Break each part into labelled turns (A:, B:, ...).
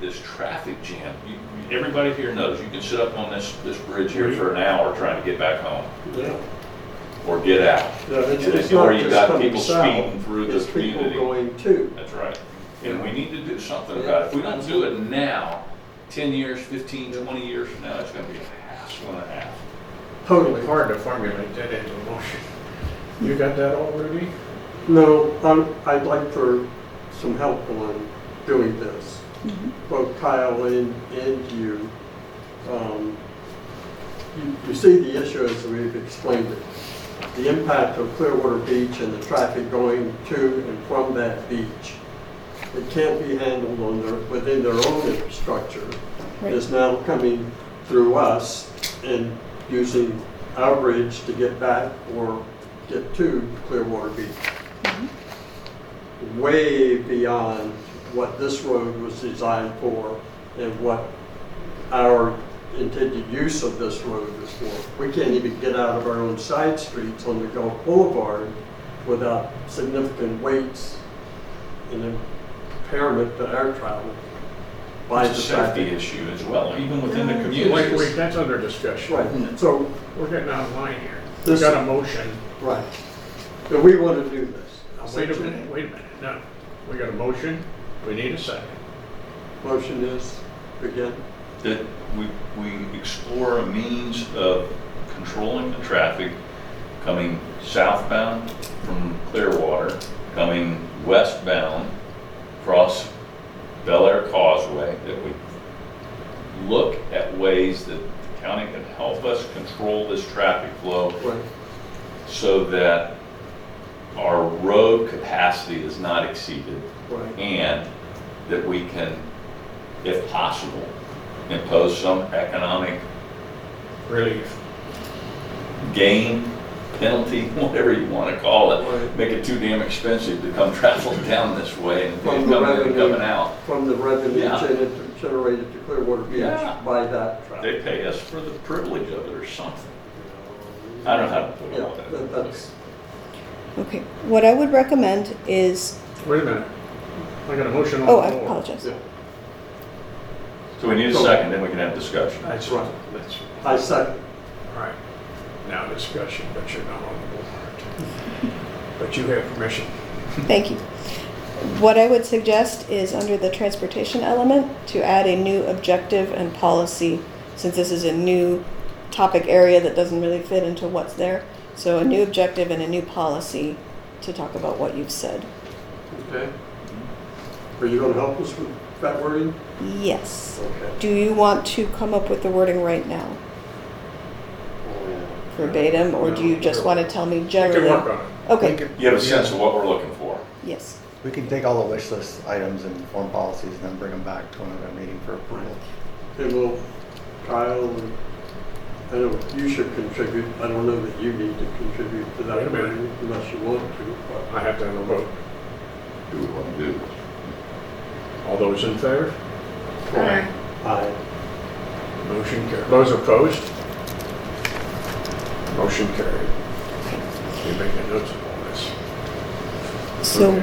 A: this traffic jam. You- you- Everybody here knows, you can sit up on this, this bridge here for an hour trying to get back home
B: Yeah,
A: or get out.
B: Yeah, it's,
A: And
B: it's
A: or
B: not
A: you
B: just
A: got
B: coming
A: people speeding
B: south,
A: through the
B: it's people
A: community.
B: going too.
A: That's right. And we need to do something about it. If we don't do it now, 10 years, 15, 20 years from now, it's going to be a hassle and a half.
B: Totally.
C: Hard to formulate that into a motion. You got that already?
B: No, I'm, I'd like for some help on doing this, both Kyle and, and you. Um, You, you see the issue as we've explained it. The impact of Clearwater Beach and the traffic going to and from that beach. It can't be handled on their, within their own infrastructure. It's now coming through us and using our bridge to get back or get to Clearwater Beach way beyond what this road was designed for and what our intended use of this road was for. We can't even get out of our own side streets on the Gulf Boulevard without significant weights and impairment to our travel. by
A: It's a
B: the fact
A: safety issue as well, even within the
C: Wait, wait,
A: community.
C: that's under
B: that-
C: discussion.
B: Right, so,
C: We're getting out of line here. We
B: This-
C: got a motion.
B: right. But we want to do this.
C: Now, Wait a minute, wait a minute, no. We got a motion, we need a second.
B: Motion is, again,
A: That we, we explore a means of controlling the traffic coming southbound from Clearwater, coming westbound across Bel Air Causeway, that we look at ways that the county can help us control this traffic flow
B: right,
A: so that our road capacity is not exceeded
B: right,
A: and that we can, if possible, impose some economic
C: Relief.
A: gain, penalty, whatever you want to call it.
B: Right.
A: Make it too damn expensive to come traveling down this way and
B: From
A: coming
B: the
A: in and
B: revenue.
A: coming out.
B: from the revenue
A: Yeah.
B: gener- generated to Clearwater
A: Yeah.
B: Beach by that
A: They
B: traffic.
A: pay us for the privilege of it or something. I don't know how to put it
B: Yeah,
A: all that.
B: that- that's,
D: Okay, what I would recommend is,
C: Wait a minute. I got a motion on the
D: oh,
C: floor.
D: I apologize.
B: yeah,
A: So we need a second, then we can have discussion.
C: That's right, that's,
B: I second,
C: all right. Now discussion, but you're not on the board. But you have permission.
D: Thank you. What I would suggest is under the transportation element to add a new objective and policy, since this is a new topic area that doesn't really fit into what's there. So a new objective and a new policy to talk about what you've said.
B: okay. Are you gonna help us with that wording?
D: Yes.
B: Okay.
D: Do you want to come up with the wording right now verbatim, or do you just want to tell me
C: You can
D: generally?
C: work on it.
E: We
D: Okay,
E: could-
A: You have a sense of what we're looking for.
D: yes.
E: We can take all the wish list items and form policies and then bring them back to another meeting for approval.
B: And will Kyle, and- I know you should contribute, I don't know that you need to contribute to
C: Wait a
B: that
C: minute.
B: wording unless you want to, but
C: I have to have a vote.
A: Do we want to do?
C: All those in favor?
B: I,
C: Motion carried. Those opposed? Motion carried. You make a note of all this.
D: So
C: Okay.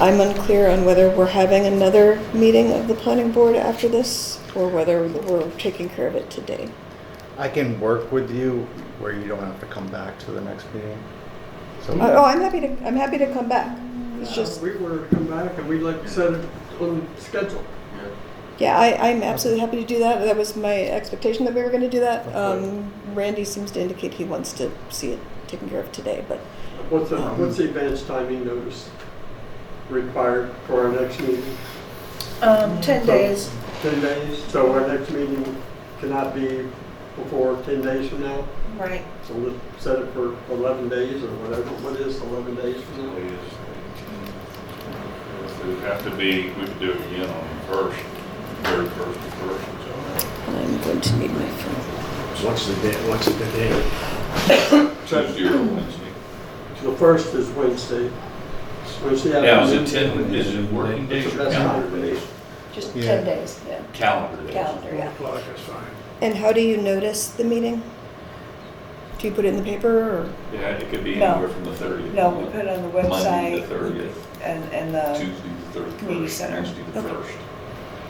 D: I'm unclear on whether we're having another meeting of the planning board after this or whether we're taking care of it today.
E: I can work with you where you don't have to come back to the next meeting.
D: Oh,
E: So
D: oh, I'm happy to, I'm happy to come back. It's just,
B: we were to come back and we'd like to set it on the schedule.
D: yeah, I, I'm absolutely happy to do that. That was my expectation that we were gonna do that. Um, Randy seems to indicate he wants to see it taken care of today, but
B: What's the, what's the advance timing notice required for our next meeting?
A: Mm,
F: Um, 10 days.
B: Ten days, so our next meeting cannot be before ten days from now?
F: Right.
B: So we'll set it for 11 days or whatever, what is 11 days from now?
A: It would have to be, we could do it again on the first, third, first, and first, and so
D: I'm going to need my phone.
C: So What's the date, what's the date?
A: on. Tuesday or Wednesday.
B: The first is Wednesday. Wednesday
A: Now, is it
B: afternoon.
A: ten, is it working days or
B: That's
A: calendar
B: fine.
A: days?
F: Just
E: Yeah.
F: 10 days, yeah.
A: Calendar days.
F: Calendar,
C: Four
F: yeah.
C: o'clock is fine.
D: And how do you notice the meeting? Do you put it in the paper or?
A: Yeah, it could be
F: No.
A: anywhere from the thirtieth.
F: No, we put it on the
A: Monday, the
F: website
A: thirtieth,
F: and, and the,
A: Tuesday, the
F: Community
A: thirty-first,
F: Center.
A: Wednesday, the
D: Okay.
A: first.